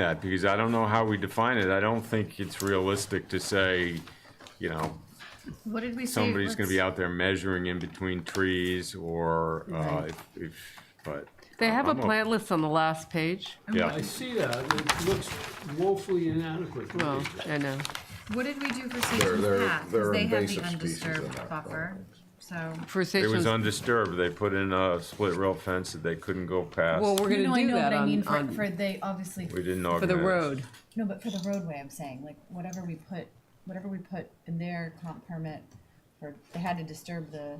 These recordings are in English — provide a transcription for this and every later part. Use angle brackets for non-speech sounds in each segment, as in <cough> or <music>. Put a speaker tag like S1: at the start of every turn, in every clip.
S1: that because I don't know how we define it. I don't think it's realistic to say, you know,
S2: What did we say?
S1: somebody's gonna be
S2: Let's-
S1: out there measuring in between trees or, uh, if, if, but.
S3: They have a
S1: I'm o-
S3: plant list on the last page.
S1: Yeah,
S4: I see that, it looks woefully inadequate.
S3: Well, I know.
S2: What did we do for Sage's
S5: they're-
S2: Path? 'Cause
S5: they're
S2: they have the
S5: invasive species in
S2: undisturbed
S5: that
S2: buffer, so.
S1: it
S3: For
S1: was
S3: Sachem's, well,
S1: undisturbed. They put in a split rail fence that they couldn't go past.
S3: we're
S2: No, no,
S3: gonna
S2: I
S3: do
S2: know,
S3: that
S2: but I mean,
S3: on,
S2: for,
S3: on,
S2: for the, obviously,
S1: We didn't
S3: for the
S1: organize.
S3: road.
S2: no, but for the roadway, I'm saying, like, whatever we put, whatever we put in their comp permit, for, they had to disturb the,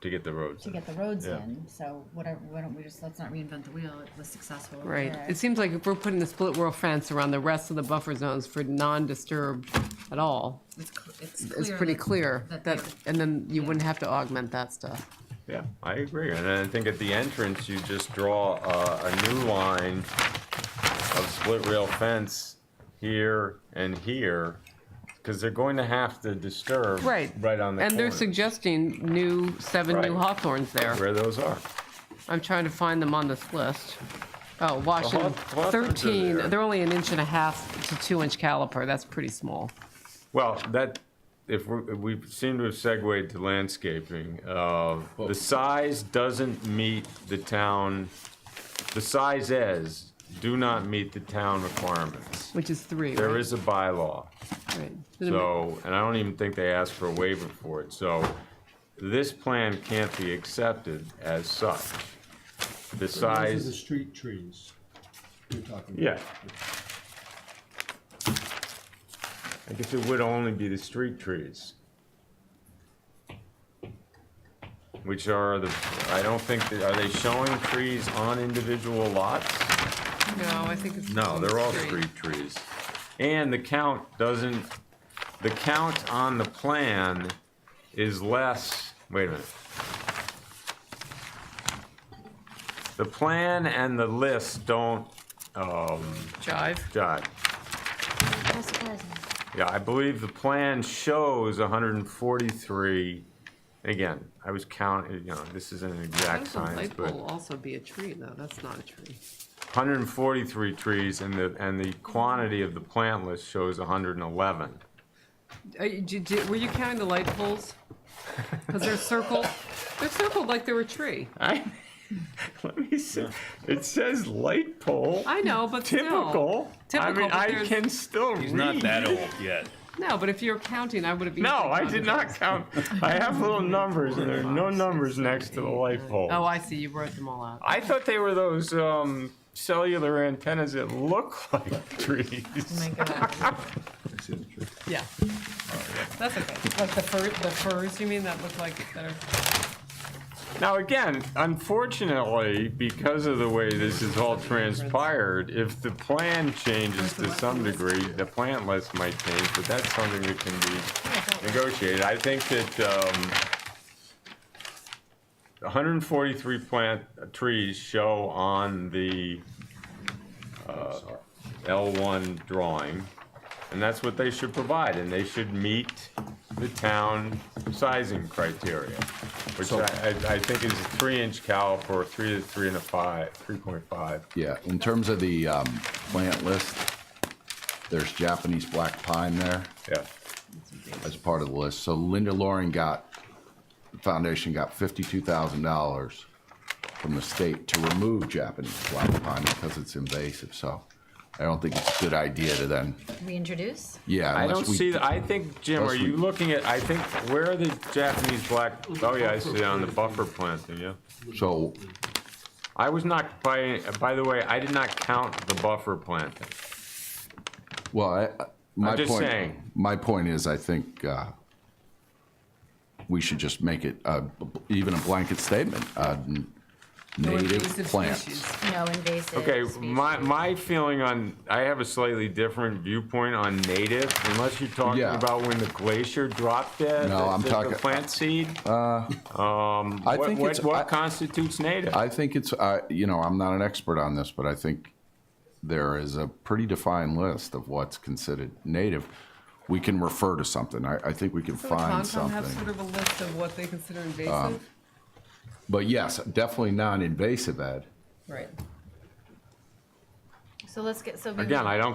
S1: To get the roads.
S2: to
S1: in.
S2: get the roads
S1: Yeah.
S2: in, so whatever, why don't we just, let's not reinvent the wheel, it was successful. over
S3: Right.
S2: there.
S3: It seems like if we're putting the split whorl fence around the rest of the buffer zones for non-disturbed at all,
S2: It's, cl-
S3: it's pretty
S2: that-
S3: clear
S2: that
S3: that,
S2: they're-
S3: and then you wouldn't have to augment that stuff.
S1: Yeah, I agree. And I think at the entrance, you just draw a, a new line of split rail fence here and here, because they're going to have to disturb
S3: Right.
S1: right on the
S3: And they're
S1: corner,
S3: suggesting new, seven new
S1: Right.
S3: hawthorns there.
S1: where those are.
S3: I'm trying to find them on this list. Oh, Washington,
S1: Hawthorns are
S3: thirteen,
S1: there.
S3: they're only an inch and a half to two inch caliper. That's pretty small.
S1: Well, that, if we, we seem to have segued to landscaping, uh, the size doesn't meet the town, the sizes do not meet the town requirements.
S3: Which is three,
S1: There
S3: right?
S1: is a bylaw.
S3: Right.
S1: So, and I don't even think they asked for a waiver for it, so this plan can't be accepted as such. The
S4: Those are the
S1: size,
S4: street trees you're talking about.
S1: yeah. I guess it would only be the street trees. Which are the, I don't think, that- are they showing trees on individual lots?
S3: No, I think it's.
S1: No, they're all
S3: three.
S1: street trees. And the count doesn't, the count on the plan is less, wait a minute. The plan and the list don't
S3: Jive.
S1: jive.
S2: How surprising.
S1: Yeah, I believe the plan shows 143. Again, I was counting, you know, this isn't an exact
S3: Those
S1: science,
S3: light
S1: but
S3: bulb also be a tree though, that's not a tree.
S1: 143 trees and the, and the quantity of the plant list shows 111.
S3: Are you, Uh, did, did- were you counting the light poles? Cause they're circled, they're circled like they were a tree.
S1: I <laughs> let me see. It says light pole.
S3: I know, but still.
S1: typical. I
S3: Typical,
S1: mean,
S3: but
S1: I
S3: there's-
S1: can still
S6: He's
S1: read.
S6: not that old yet.
S3: No, but if you're counting, I would have.
S1: No, I did not count. I have little numbers, and there are no numbers next to the light pole.
S3: Oh, I see, you wrote them all out.
S1: I thought they were those um, cellular antennas that look like <laughs>
S2: Oh my
S1: trees.
S2: god,
S3: Yeah. That's okay, like the fir, the firs, you mean, that look like, that are,
S1: Now, again, unfortunately, because of the way this has all transpired, if the plan changes to some degree, the plant list might change, but that's something that can be negotiated. I think that um, 143 plant trees show on the uh, L1 drawing, and that's what they should provide, and they should meet the town sizing criteria, which I, I- I think is a three-inch caliper, three to three and a five, 3.5.
S5: Yeah, in terms of the um, plant list, there's Japanese black pine there
S1: Yeah,
S5: as part of the list. So Linda Loring got, the foundation got $52,000 from the state to remove Japanese black pine because it's invasive. So I don't think it's a good idea to then,
S2: reintroduce?
S5: yeah.
S1: I
S5: unless
S1: don't
S5: we-
S1: see, I think, Jim, are
S5: Unless we-
S1: you looking at, I think, where are the Japanese black, oh yeah, I see it on the buffer planting, yeah.
S5: So,
S1: I was not, by, by the way, I did not count the buffer planting.
S5: well, I, uh, my
S1: just
S5: point,
S1: saying.
S5: my point is, I think uh, we should just make it uh, b- b- even a blanket statement, uh, n- native
S3: invasive
S5: plants.
S3: species.
S2: No invasive
S1: Okay,
S2: species.
S1: my, my feeling on, I have a slightly different viewpoint on native, unless you're talking
S5: Yeah.
S1: about when the glacier dropped dead.
S5: No,
S1: the-
S5: I'm
S1: the-
S5: talking-
S1: The plant seed,
S5: I
S1: what,
S5: think
S1: what,
S5: it's,
S1: what
S5: I,
S1: constitutes native?
S5: I think it's, uh, you know, I'm not an expert on this, but I think there is a pretty defined list of what's considered native. We can refer to something. I, I think we can find
S3: Concom have sort
S5: something.
S3: of a list of what they consider
S1: Um,
S3: invasive?
S5: But yes, definitely non-invasive, Ed.
S3: Right.
S7: So let's get, so. we-
S2: Again, I don't